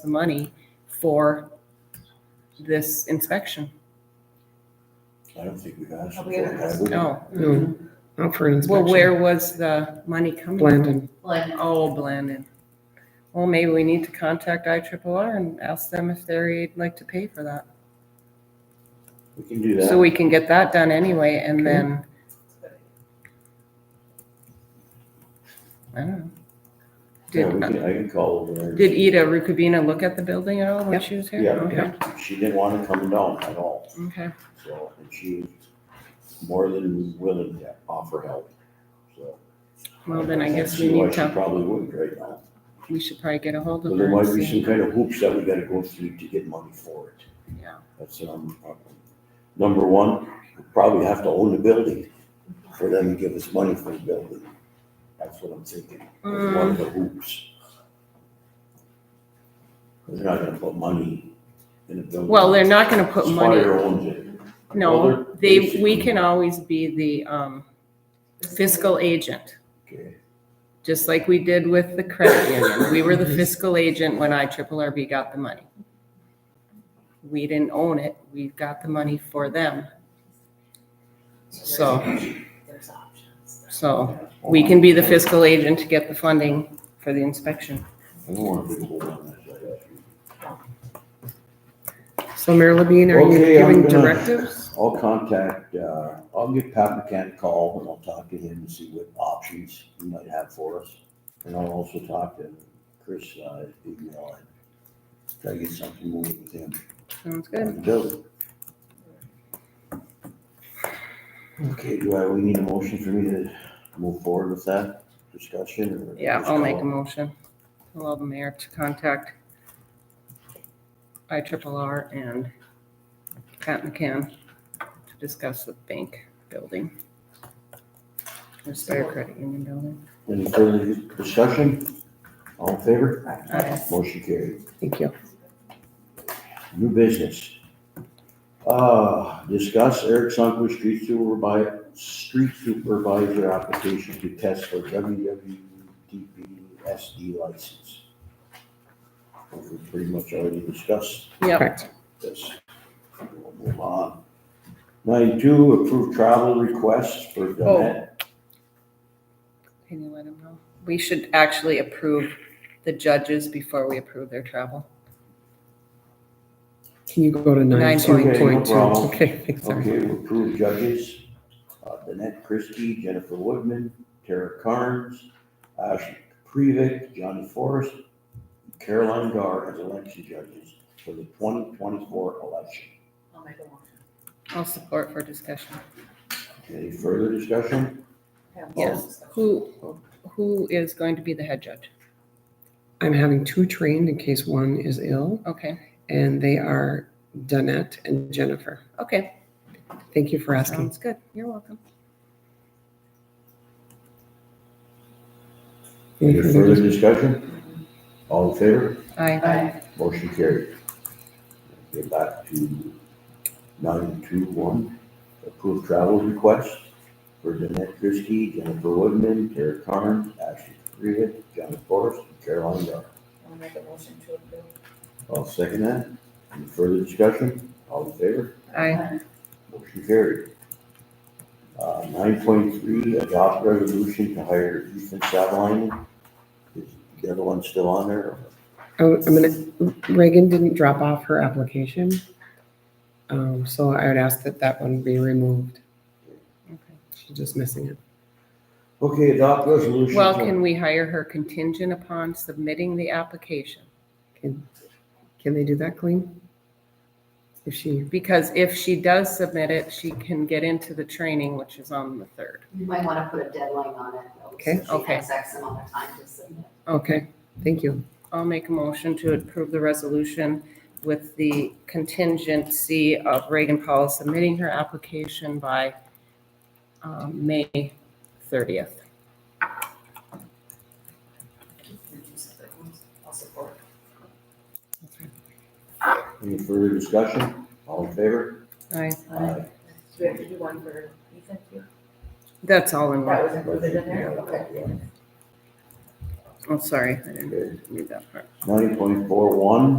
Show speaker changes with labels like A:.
A: the money for this inspection.
B: I don't think we've asked.
C: We haven't
B: for it, have
C: asked.
B: we?
A: No.
D: No, not for an
A: Mm-hmm. Well,
D: inspection.
A: Oh, where was the money coming? from?
D: Blandon.
C: Like,
A: Oh, Blandon. Well, maybe we need to contact I and ask them if they'd like to pay for that.
B: We can do
A: So
B: that.
A: we can get that done anyway and then, I don't know.
B: Yeah, we
A: Did, uh,
B: can, I can call over there.
A: did E- Ida Rukabina look at the building at all when
D: Yep.
A: she was here?
B: Yeah,
A: Okay,
B: She didn't want to come down at all,
A: okay.
B: so, and she was more than willing to offer help, so.
A: Well, then I guess
B: See
A: we
B: why
A: need
B: She
A: to,
B: probably wouldn't right now.
A: we should probably get a hold of
B: But
A: her.
B: there
A: and
B: might be
A: see.
B: some kind of hoops that we gotta go through to get money for it.
A: Yeah.
B: That's, um, number one, we probably have to own the building for them to give us money for the building. That's what I'm thinking, is one
A: Mm.
B: of the hoops. They're not gonna put money in the building.
A: Well, they're not gonna put money.
B: Spire owns it. Well,
A: No,
B: they're
A: they, we
B: basically-
A: can always be the um, fiscal agent,
B: Okay,
A: just like we did with the credit union. We were the fiscal agent when I triple RB got the money. We didn't own it, we got the money for them, So-
C: There's options.
A: so we can be the fiscal agent to get the funding for the inspection.
B: I don't want to be hold on that, I got you.
D: So Mayor Levine, are you
B: Okay, I'm
D: giving
B: gonna-
D: directives?
B: I'll contact, uh, I'll give Pat McCann a call and I'll talk to him and see what options he might have for us. And I'll also talk to Chris, uh, email and try to get something moving with him
A: Sounds
B: on
A: good.
B: the building. Okay, do I, we need a motion for me to move forward with that discussion or?
A: Yeah,
B: just
A: I'll make a
B: call?
A: motion. Allow the mayor to contact I triple R and Pat McCann to discuss the bank building. The Spire Credit Union building.
B: Any further discussion? All in favor?
A: Aye.
B: Motion carried.
D: Uh, Thank you.
B: New business. Uh, discuss Eric Sunquist street supervisor, street supervisor application to test for WWDP SD license. We pretty much already discussed
A: Yep.
D: Correct.
B: this. We'll Move on. Ninety-two, approve travel requests for Donette.
A: Can you let him know? We should actually approve the judges before we approve their travel.
D: Can you go to nine
A: Nine
D: two
B: point two.
D: point two?
B: Okay, no problem.
D: Okay, thanks, sorry.
B: Okay, we approve judges, uh, Donette Christie, Jennifer Woodman, Tara Carnes, Ashley Previck, Johnny Forrest, Caroline Gar as election judges for the twenty twenty-four election.
C: I'll make a motion.
A: I'll support for discussion.
B: Any further discussion?
C: Have
A: Yes.
C: discussion.
A: Who, who is going to be the head judge?
D: I'm having two trained in case one is ill,
A: Okay,
D: and they are Danette and Jennifer.
A: okay,
D: Thank you for asking.
A: sounds good. You're welcome.
D: Any
B: Any
D: further
B: further discussion? All in favor?
A: Aye.
C: Aye.
B: Motion carried. Get back to nine two one, approve travel request for Danette Christie, Jennifer Woodman, Tara Carnes, Ashley Freehead, John Forrest, and Caroline Dar.
C: I'll make a motion to approve.
B: I'll second that. Any further discussion? All in favor?
A: Aye.
B: Motion carried. Uh, nine point three, adopt resolution to hire Ethan Savalainen. Is the other one still on there?
D: Oh, I'm gonna, Reagan didn't drop off her application. Um, so I would ask that that one be removed.
A: Okay.
D: She's just missing it.
B: Okay, adopt resolution.
A: Well,
B: to-
A: can we hire her contingent upon submitting the application?
D: Can, can they do that, clean? If she,
A: Because if she does submit it, she can get into the training, which is on the third.
C: You might want to put a deadline on it. though, so
D: Okay.
C: She
A: Okay.
C: has X amount of time to submit.
D: okay, thank you.
A: I'll make a motion to approve the resolution with the contingency of Reagan Powell submitting her application by um, May thirtieth.
C: Can you separate ones? "Oh, I'll support.
B: Any further discussion? All in favor?
A: Aye,
C: Uh,
B: Aye.
C: Do we have to do one for Ethan too?
A: that's all in
C: That
A: one.
C: was included in there? Okay.
A: Oh, sorry, I didn't
B: Okay.
A: read that part.
B: Nine point four one,